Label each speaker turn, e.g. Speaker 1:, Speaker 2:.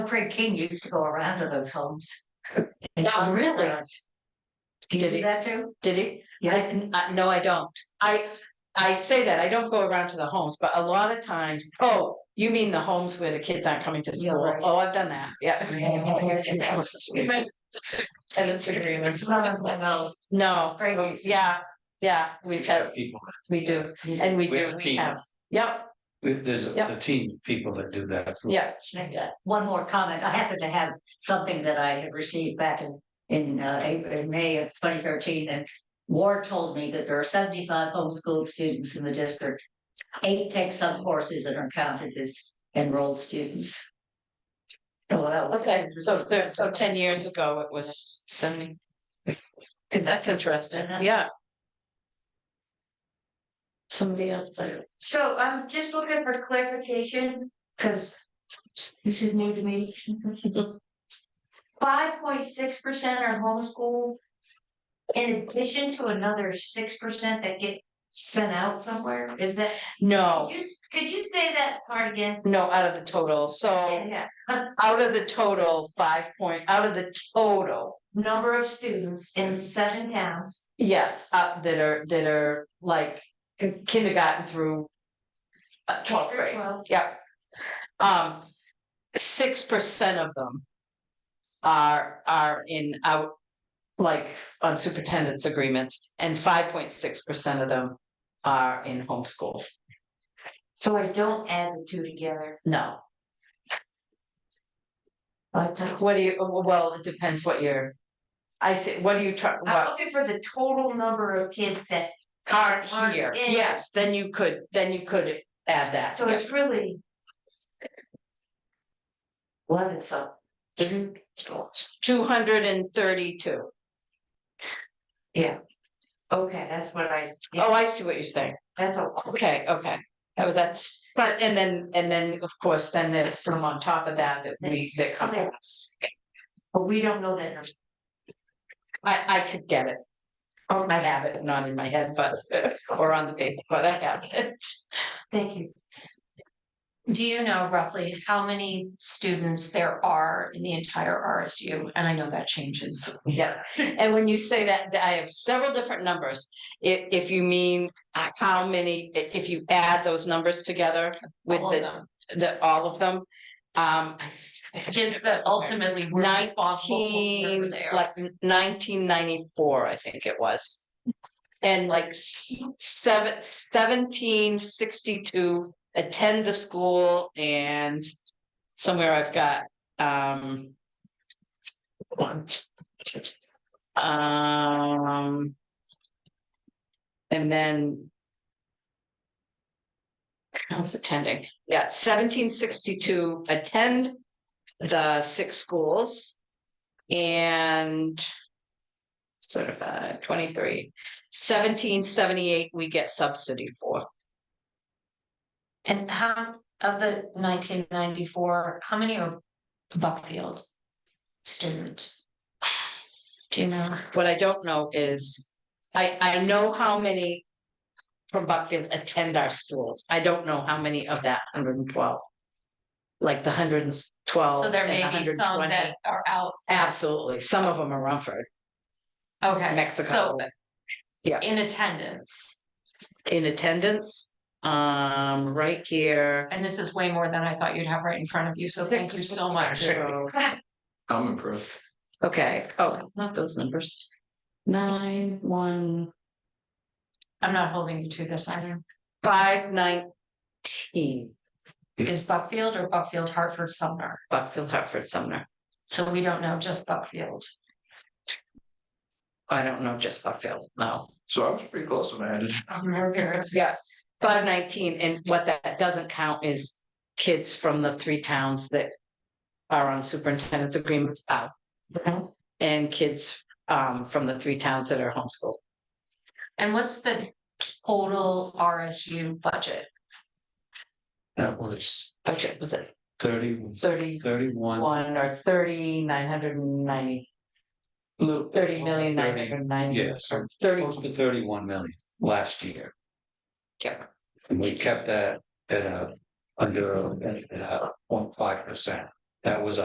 Speaker 1: Fred King used to go around to those homes. And
Speaker 2: Yeah.
Speaker 1: so really, do you
Speaker 2: Oh Did
Speaker 1: do
Speaker 2: he,
Speaker 1: that too?
Speaker 2: did he?
Speaker 1: Yeah.
Speaker 2: I- n- I- no, I don't. I, I say that, I don't go around to the homes, but a lot of times, oh, you mean the homes where the kids aren't coming to
Speaker 1: Yeah,
Speaker 2: school?
Speaker 1: right.
Speaker 2: Oh, I've done that, yeah.
Speaker 1: Yeah.
Speaker 2: Tenants agreements.
Speaker 1: Well,
Speaker 2: No, Oh,
Speaker 1: Great.
Speaker 2: yeah, yeah, we've had,
Speaker 3: People,
Speaker 2: we do, and we
Speaker 3: We have
Speaker 2: do,
Speaker 3: a
Speaker 2: we
Speaker 3: team.
Speaker 2: have, yep,
Speaker 3: we- there's
Speaker 2: Yeah.
Speaker 3: a team of people that do that.
Speaker 2: yeah,
Speaker 1: uh, One more comment. I happen to have something that I had received back in, in, uh, April, in May of twenty thirteen and Ward told me that there are seventy-five homeschool students in the district. Eight take some courses and are counted as enrolled students. So that was.
Speaker 2: okay, so thir- so ten years ago, it was seventy. That's interesting, yeah. Somebody else, I-
Speaker 4: So I'm just looking for clarification, because this is new to me. Five point six percent are homeschooled. In addition to another six percent that get sent out somewhere, is that,
Speaker 2: no.
Speaker 4: could you, could you say that part again?
Speaker 2: No, out of the total, so
Speaker 4: Yeah,
Speaker 2: out of the total, five point, out of the total,
Speaker 4: number of students in seven towns,
Speaker 2: yes, uh, that are, that are like kindergarten through. Uh, twelfth
Speaker 4: K through
Speaker 2: grade,
Speaker 4: twelve,
Speaker 2: yep. Um, six percent of them. Are, are in out, like on superintendent's agreements, and five point six percent of them are in homeschool,
Speaker 4: so I don't add the two together.
Speaker 2: no.
Speaker 4: Five times.
Speaker 2: What do you, well, it depends what you're, I say, what do you try, what?
Speaker 4: I'm looking for the total number of kids that,
Speaker 2: aren't
Speaker 4: Aren't
Speaker 2: here,
Speaker 4: in.
Speaker 2: yes, then you could, then you could add that.
Speaker 4: so it's really. Eleven something.
Speaker 2: Two hundred and thirty-two.
Speaker 4: Okay, that's what I, yeah,
Speaker 2: Oh, I see what you're saying.
Speaker 4: that's a,
Speaker 2: Okay, okay. That was that. But, and then, and then, of course, then there's some on top of that that we, that come to us.
Speaker 4: but we don't know that number.
Speaker 2: I, I could get it. I have it, not in my head, but, or on the paper, but I have it.
Speaker 4: Thank you.
Speaker 5: Do you know roughly how many students there are in the entire RSU? And I know that changes.
Speaker 2: Yeah, and when you say that, th- I have several different numbers. If, if you mean uh, how many, i- if you add those numbers together with
Speaker 5: all of
Speaker 2: the,
Speaker 5: them.
Speaker 2: the, all of them. Um,
Speaker 5: Kids that ultimately were responsible for
Speaker 2: nineteen,
Speaker 5: there.
Speaker 2: like nineteen ninety-four, I think it was. And like s- seven, seventeen sixty-two attend the school and somewhere I've got, um. One. Um. And then. Counts attending, yeah, seventeen sixty-two attend the six schools. And. Sort of uh twenty-three, seventeen seventy-eight, we get subsidy for.
Speaker 5: And how, of the nineteen ninety-four, how many are Buckfield students? Do you know?
Speaker 2: What I don't know is, I I know how many. From Buckfield attend our schools. I don't know how many of that hundred and twelve. Like the hundred and twelve
Speaker 5: So there
Speaker 2: and
Speaker 5: may be
Speaker 2: Oh, hundred and
Speaker 5: some
Speaker 2: twenty.
Speaker 5: that are out.
Speaker 2: Absolutely. Some of them are Rumford,
Speaker 5: Okay.
Speaker 2: Mexico.
Speaker 5: so
Speaker 2: Yeah.
Speaker 5: In attendance,
Speaker 2: In attendance, um, right here.
Speaker 5: and this is way more than I thought you'd have right in front of you, so thank you so much.
Speaker 2: So-
Speaker 3: I'm impressed.
Speaker 2: Okay, oh, not those numbers. Nine, one,
Speaker 5: I'm not holding you to this either.
Speaker 2: five, nineteen,
Speaker 5: Is Buckfield or Buckfield Hartford Sumner?
Speaker 2: Buckfield, Hartford, Sumner.
Speaker 5: So we don't know just Buckfield.
Speaker 2: I don't know just Buckfield, no.
Speaker 3: So I was pretty close when I had it.
Speaker 2: Yes. Five nineteen, and what that doesn't count is kids from the three towns that are on superintendent's agreements out.
Speaker 5: Mhm.
Speaker 2: And kids um from the three towns that are homeschooled.
Speaker 5: And what's the total RSU budget?
Speaker 3: That was
Speaker 2: Budget was it
Speaker 3: thirty,
Speaker 2: thirty-one
Speaker 3: thirty-one.
Speaker 2: or thirty nine hundred and ninety?
Speaker 3: little-
Speaker 2: Thirty million nine
Speaker 3: thirty,
Speaker 2: hundred and ninety.
Speaker 3: Yeah, so
Speaker 2: Thirty,
Speaker 3: close to thirty-one million last year.
Speaker 2: yeah,
Speaker 3: And we kept that at a, under, at a point five percent. That was